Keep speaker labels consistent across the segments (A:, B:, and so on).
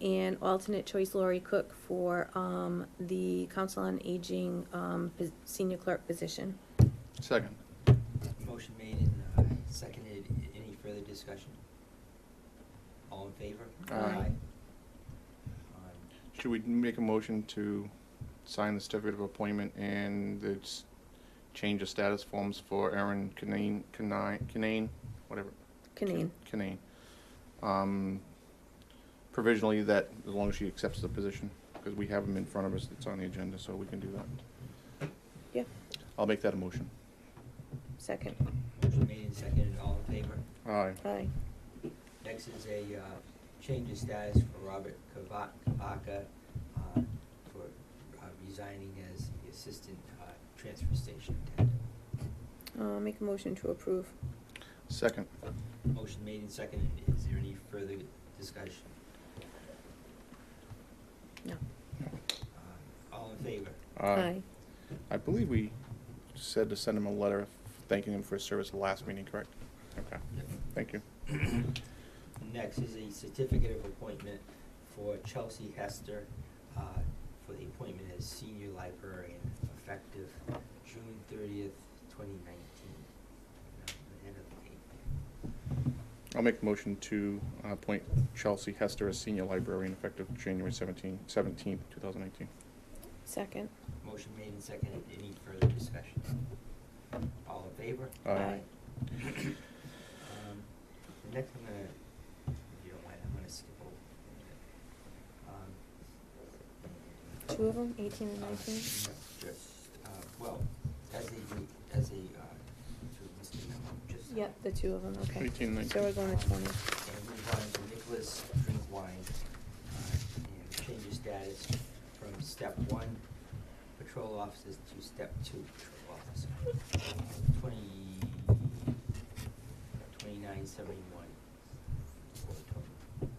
A: and alternate choice Lori Cook for um, the Council on Aging um, pos- senior clerk position.
B: Second.
C: Motion made and uh, seconded. A- Any further discussion? All in favor?
B: Aye.
C: Aye.
B: Should we make a motion to sign the certificate of appointment and the s- change of status forms for Aaron Canane, Canine, Canane, whatever?
A: Canaan.
B: Canane. Um, Provisionally that, as long as she accepts the position, because we have them in front of us, it's on the agenda, so we can do that.
A: Yeah,
B: I'll make that a motion.
A: second.
C: Motion made and seconded. All in favor?
B: Aye.
A: Aye.
C: Next is a uh, change of status for Robert Kava- Kavaka uh, for uh, resigning as the assistant uh, transfer station attendant.
A: Uh, Make a motion to approve.
B: Second.
C: Motion made and seconded. Is there any further discussion?
A: No.
C: Uh, All in favor?
A: Aye.
B: Uh, I believe we said to send him a letter thanking him for his service at the last meeting, correct? Okay, thank you.
C: Next is a certificate of appointment for Chelsea Hester uh, for the appointment as senior librarian effective June thirtieth, twenty nineteen. The end of the date.
B: I'll make a motion to uh, appoint Chelsea Hester as senior librarian effective January 17, 17, 2019.
A: Second.
C: Motion made and seconded. Any further discussion? All in favor?
B: Aye. Aye.
C: Um, Next, I'm gonna, if you don't mind, I'm gonna skip over. um,
A: Two of them, 18 and
C: Uh,
A: 19?
C: no, Just, uh, well, as a, re- as a, uh, to Mr. Memo, just. uh,
A: Yep, the two of them, okay.
B: 18, 19.
A: So we're going to 20.
C: And move on to Nicholas Drinkwine, uh, and change his status from step one patrol officers to step two patrol officer. Twenty, twenty-nine seventy-one. for total.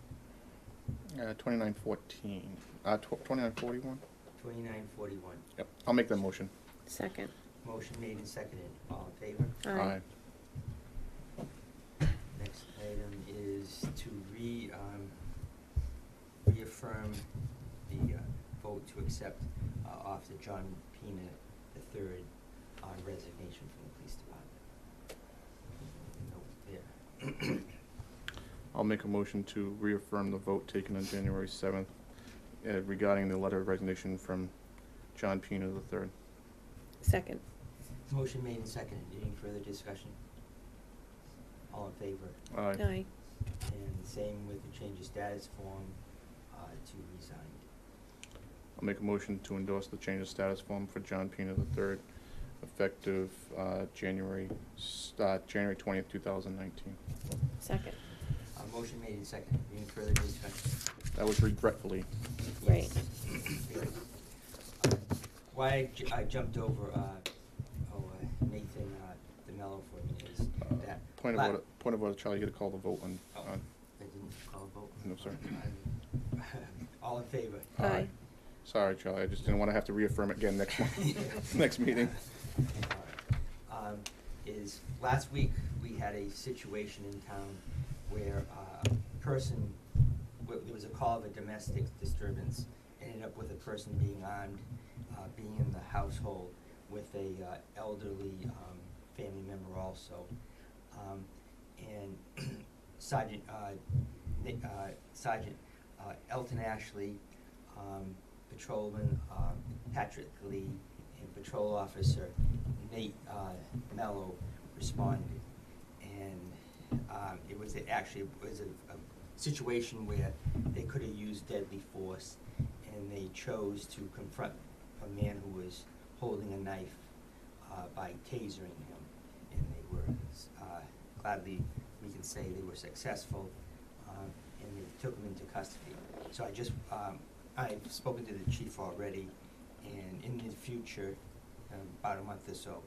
B: Uh, 2914, uh, tw- 2941?
C: Twenty-nine forty-one.
B: Yep, I'll make that motion.
A: Second.
C: Motion made and seconded, all in favor?
A: Aye.
C: Next item is to re, um, reaffirm the uh, vote to accept uh, Officer John Pena III on resignation from the police department. Note
B: I'll make a motion to reaffirm the vote taken on January 7th uh, regarding the letter of resignation from John Pino III.
A: Second.
C: there. Motion made and seconded, any further discussion? All in favor?
B: Aye.
A: Aye.
C: And same with the change of status form uh, to resigned.
B: I'll make a motion to endorse the change of status form for John Pino III effective uh, January, s- uh, January 20th, 2019.
A: Second.
C: Uh, Motion made and seconded, any further discussion?
B: That was regretfully.
A: Right.
C: Why I ju- I jumped over, uh, oh, uh, Nathan, uh, the mellow for me is
B: uh,
C: that.
B: Point of
C: la-
B: order, point of order, Charlie, you gotta call the vote on,
C: Oh,
B: on,
C: I didn't call a vote.
B: No, sorry.
C: I'm- All in favor?
B: Aye.
A: Aye.
B: sorry, Charlie, I just didn't wanna have to reaffirm it again next month, next meeting.
C: Um, Is, last week, we had a situation in town where uh, a person, where there was a call of a domestic disturbance, ended up with a person being armed, uh, being in the household with a uh, elderly um, family member also. Um, And Sergeant, uh, Ni- uh, Sergeant uh, Elton Ashley, um, Patrolman uh, Patrick Lee, and Patrol Officer Nate uh, Mello responded. And um, it was a- actually, it was a a situation where they could have used deadly force, and they chose to confront a man who was holding a knife uh, by tasering him. And they were, uh, gladly, we can say they were successful, um, and they took him into custody. So I just, um, I've spoken to the chief already, and in the future, um, about a month or so,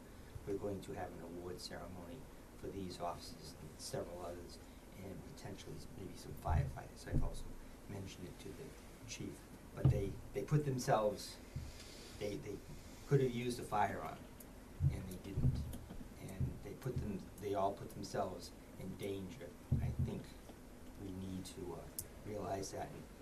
C: we're going to have an award ceremony for these officers and several others, and potentially maybe some firefighters. I've also mentioned it to the chief, but they, they put themselves, they, they could have used a firearm, and they didn't. And they put them, they all put themselves in danger. I think we need to uh, realize that and